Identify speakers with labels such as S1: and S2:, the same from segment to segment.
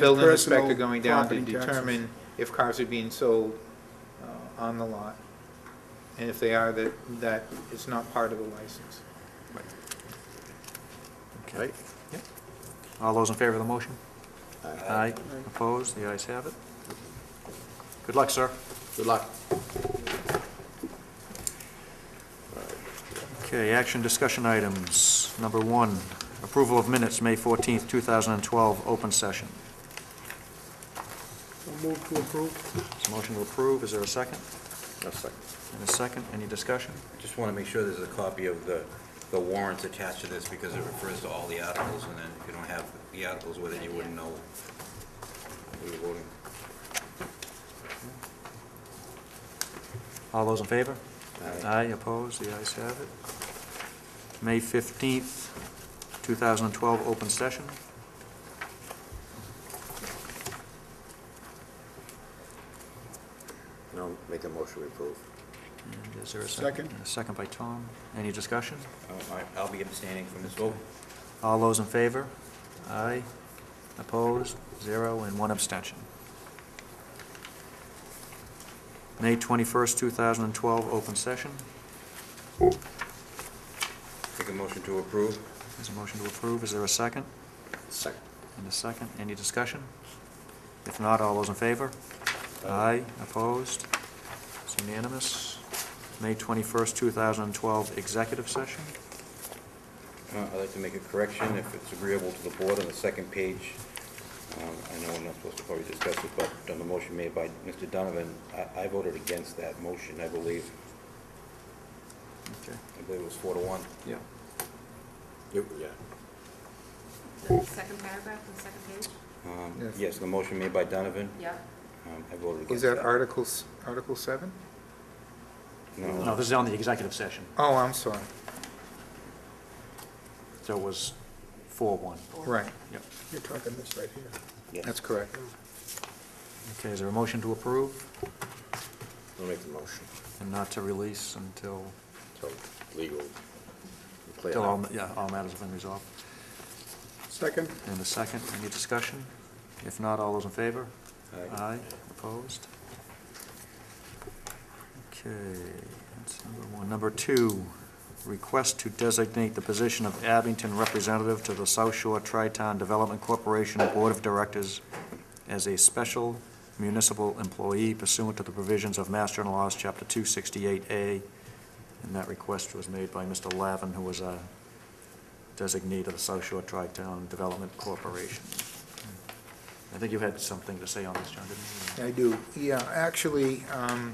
S1: building
S2: personal
S1: inspector going down to
S2: property taxes.
S1: determine if cars are being sold uh, on the lot. And if they are, that, that is not part of the license.
S3: Right? All those in favor of the motion? Aye.
S2: Aye.
S3: Opposed? The ayes have it. Good luck, sir.
S4: Good luck.
S3: Okay, action discussion items. Number one, approval of minutes, May 14th, 2012, open session.
S2: I'll move to approve.
S3: Is a motion to approve? Is there a second?
S4: No second.
S3: And a second? Any discussion?
S5: Just want to make sure there's a copy of the, the warrants attached to this, because it refers to all the articles, and then if you don't have the articles with it, you wouldn't know what you're voting.
S3: All those in favor? Aye, opposed? The ayes have it. May 15th, 2012, open session.
S4: No, make a motion to approve.
S3: And Is there a second?
S2: Second.
S3: A second by Tom. Any discussion?
S5: Oh, all right, I'll be abstaining from this vote.
S3: All those in favor? Aye. Opposed? Zero, and one abstention. May 21st, 2012, open session.
S5: Make a motion to approve.
S3: There's a motion to approve. Is there a second?
S4: Second.
S3: And a second. Any discussion? If not, all those in favor? Aye. Opposed? It's unanimous. May 21st, 2012, executive session.
S5: Uh, I'd like to make a correction, if it's agreeable to the board, on the second page. Um, I know we're not supposed to probably discuss it, but on the motion made by Mr. Donovan, I, I voted against that motion, I believe.
S3: Okay.
S5: I believe it was four to one.
S4: Yeah. You- Yeah.
S6: The second paragraph, the second page?
S5: Um,
S1: Yes.
S5: Yes, the motion made by Donovan,
S6: Yeah.
S5: um, I voted
S1: Is
S5: against that.
S1: that Articles, Article 7?
S3: No, this is on the executive session,
S1: Oh, I'm sorry,
S3: so it was 4-1.
S1: right,
S3: Yep.
S2: You're talking this right here.
S4: Yes.
S1: that's correct.
S3: Okay, is there a motion to approve
S4: I'll make the motion.
S3: and not to release until,
S4: So legal. Clear
S3: until all,
S4: now.
S3: yeah, all matters have been resolved?
S2: Second?
S3: And a second, any discussion? If not, all those in favor?
S5: Aye.
S3: opposed? Okay, that's number one. Number two, request to designate the position of Abington representative to the South Shore Tri-Town Development Corporation Board of Directors as a special municipal employee pursuant to the provisions of Master and Laws, Chapter 268A. And that request was made by Mr. Lavin, who was a designee of the South Shore Tri-Town Development Corporation. I think you had something to say on this, John, didn't you?
S1: I do, yeah, actually, um,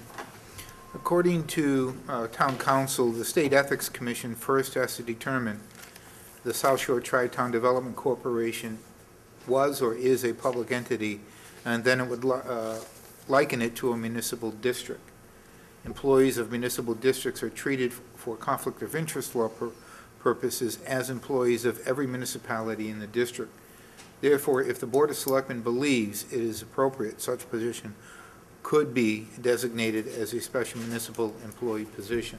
S1: according to uh, town council, the State Ethics Commission first has to determine the South Shore Tri-Town Development Corporation was or is a public entity, and then it would li- uh, liken it to a municipal district. Employees of municipal districts are treated for conflict of interest law pur- purposes as employees of every municipality in the district. Therefore, if the Board of Selectmen believes it is appropriate, such position could be designated as a special municipal employee position.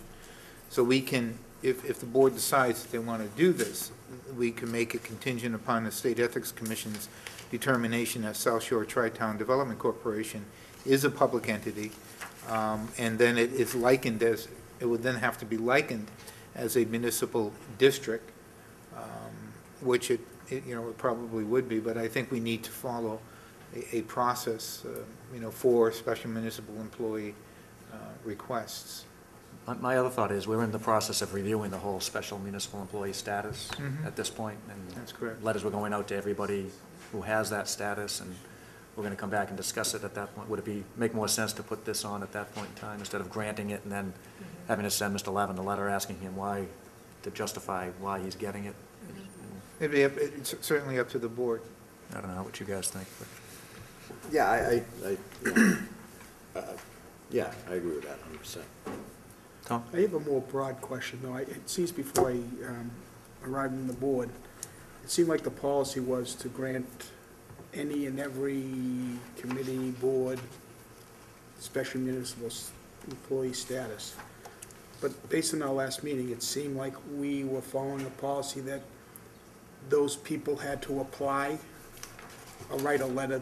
S1: So we can, if, if the board decides that they want to do this, we can make it contingent upon the State Ethics Commission's determination that South Shore Tri-Town Development Corporation is a public entity, um, and then it is likened as, it would then have to be likened as a municipal district, um, which it, it, you know, it probably would be, but I think we need to follow a, a process, uh, you know, for special municipal employee uh, requests.
S3: My- My other thought is, we're in the process of reviewing the whole special municipal employee status
S1: Mhm.
S3: at this point, and
S1: That's correct.
S3: Letters were going out to everybody who has that status, and we're gonna come back and discuss it at that point. Would it be, make more sense to put this on at that point in time, instead of granting it and then
S1: Mm-hmm.
S3: having to send Mr. Lavin a letter asking him why, to justify why he's getting it?
S1: It'd be, up- it's certainly up to the board.
S3: I don't know what you guys think, but.
S4: Yeah, I, I, I, yeah. Uh, uh, yeah, I agree with that hundred percent.
S3: Tom?
S2: I have a more broad question, though. I- It seems before I um, arrived on the board, it seemed like the policy was to grant any and every committee, board, special municipal s- employee status. But based on our last meeting, it seemed like we were following a policy that those people had to apply I'll write a letter